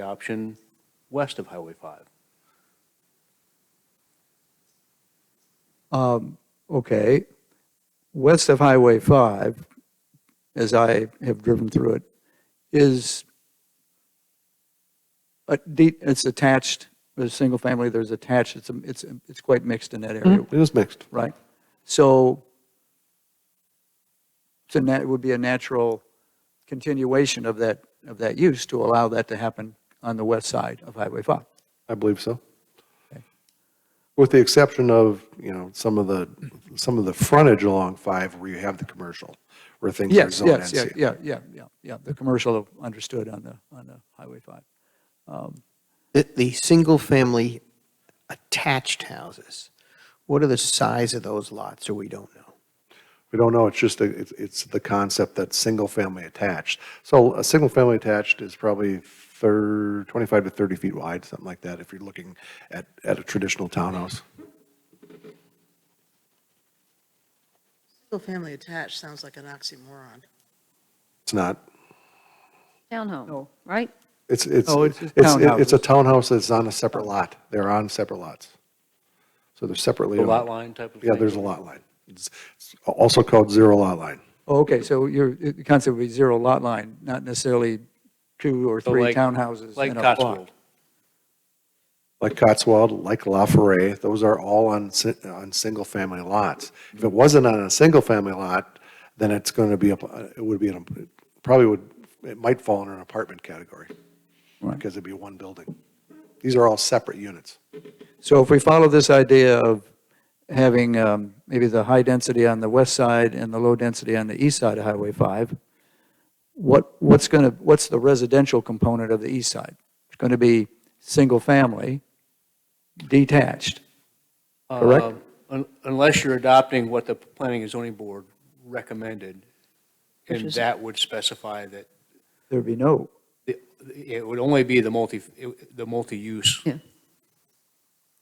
the option west of Highway 5. Um, okay, west of Highway 5, as I have driven through it, is, a de- it's attached, there's single family, there's attached, it's, a- it's, it's quite mixed in that area, Mm-hmm. It is mixed. right? So it's a nat, it would be a natural continuation of that, of that use to allow that to happen on the west side of Highway 5. I believe so. With the exception of, you know, some of the, some of the frontage along five where you have the commercial, where things are Yes, zoned yes, yeah, NC. yeah, yeah, yeah, yeah, the commercial understood on the, on the Highway 5. The, the single-family attached houses, what are the size of those lots, or we don't know? We don't know, it's just, a- it's, it's the concept that single-family attached. So a single-family attached is probably thir 25 to 30 feet wide, something like that, if you're looking at, at a traditional townhouse. Single-family attached sounds like an oxymoron. It's not, Townhome, right? it's, it's, No, it's, Oh, it's just it- it's a townhouses. townhouse that's on a separate lot. They're on separate lots. So they're separately. The owned. lot line type of thing? Yeah, there's a lot line. It's it's also called zero lot line. Oh, Okay, so your, the concept would be zero lot line, not necessarily two or So three like- townhouses Like in a Cotswold. block. Like Cotswold, like La Forêt, those are all on, si- on single-family lots. If it wasn't on a single-family lot, then it's going to be, up- uh, it would be, an it probably would, it might fall under an apartment category Right. because it'd be one building. These are all separate units. So if we follow this idea of having um, maybe the high density on the west side and the low density on the east side of Highway 5, what, what's going to, what's the residential component of the east side? It's going to be single-family, detached, Correct. Um, un- Unless you're adopting what the Planning and Zoning Board recommended, Which and is- that would specify that there'd be no, it- it would only be the multi, it- the multi-use.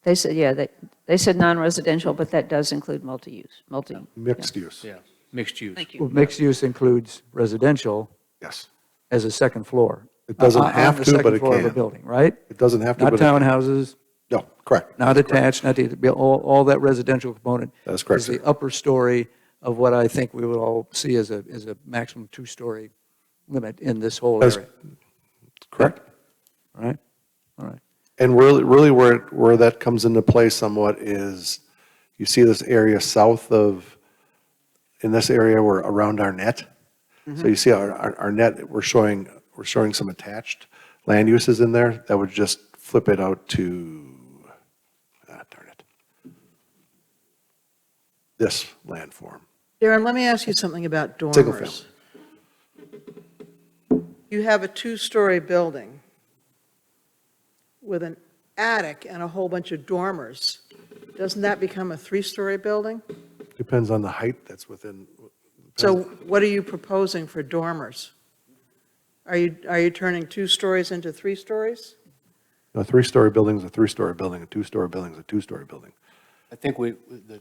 They said, yeah, they, they said non-residential, but that does include multi-use, multi. Mixed use, Yeah, mixed use. Thank you. well, mixed use includes residential yes. as a second floor. It doesn't on- on have the to, but second it floor of a can. building, right? It doesn't have to. Not but it- townhouses, No, correct. not attached, not, the- be- all, all that residential component. That is correct, Is the sir. upper story of what I think we would all see as a, as a maximum two-story limit in this whole That is area, Correct. all right? All right, And really, really where, it- where that comes into play somewhat is, you see this area south of, in this area where, around our net. So you see our, our our net, we're showing, we're showing some attached land uses in there that would just flip it out to, ah, darn it. This land form. Darren, let me ask you something about dormers. Single You have a two-story building with an attic and a whole bunch of dormers. Doesn't that become a three-story building? Depends on the height that's within. So what are you proposing for dormers? Are you, are you turning two stories into three stories? A three-story building's a three-story building, a two-story building's a two-story building. I think we, the,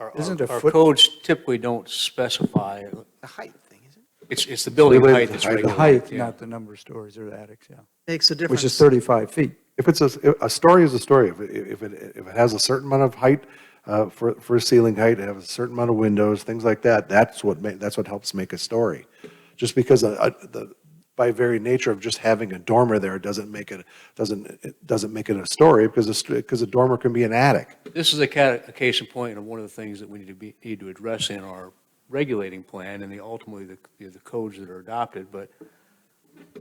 our, our- Isn't a our foot- codes typically don't specify, The height thing, isn't it? it's, it's the building Related height to that's height. The the regulated. height, yeah. not the number of stories or the attics, yeah, Makes a difference. which is 35 feet. If it's a, a story is a story. If, it- if it, if it has a certain amount of height, uh, for, for ceiling height, it has a certain amount of windows, things like that, that's what ma, that's what helps make a story. Just because a, a, the, by very nature of just having a dormer there doesn't make it, doesn't, it doesn't make it a story because a, st- because a dormer can be an attic. This is a ca, a case in point of one of the things that we need to be, need to address in our regulating plan and the, ultimately, the, you know, the codes that are adopted, but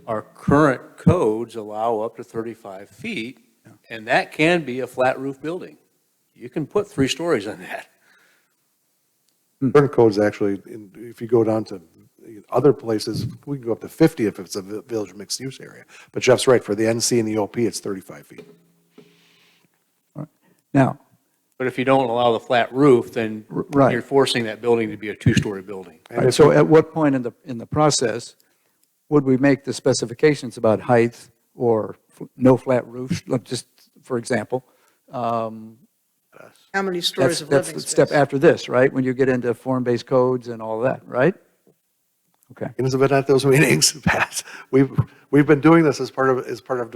our current codes allow up to thirty-five feet, and that can be a flat roof building. You can put three stories on that. Current codes actually, in- if you go down to other places, we can go up to 50 if it's a vi- village mixed use area. But Jeff's right, for the NC and the OP, it's 35 feet. Now, But if you don't allow the flat roof, then R- right. you're forcing that building to be a two-story building. And Right, if so at what point in the, in the process would we make the specifications about height or f- no flat roof, like just for example? Um, How many That's, stories of that's living the space? step after this, right? When you get into form-based codes and all that, right? Okay. Elizabeth, at those meetings, Pat, we've, we've been doing this as part of, as part of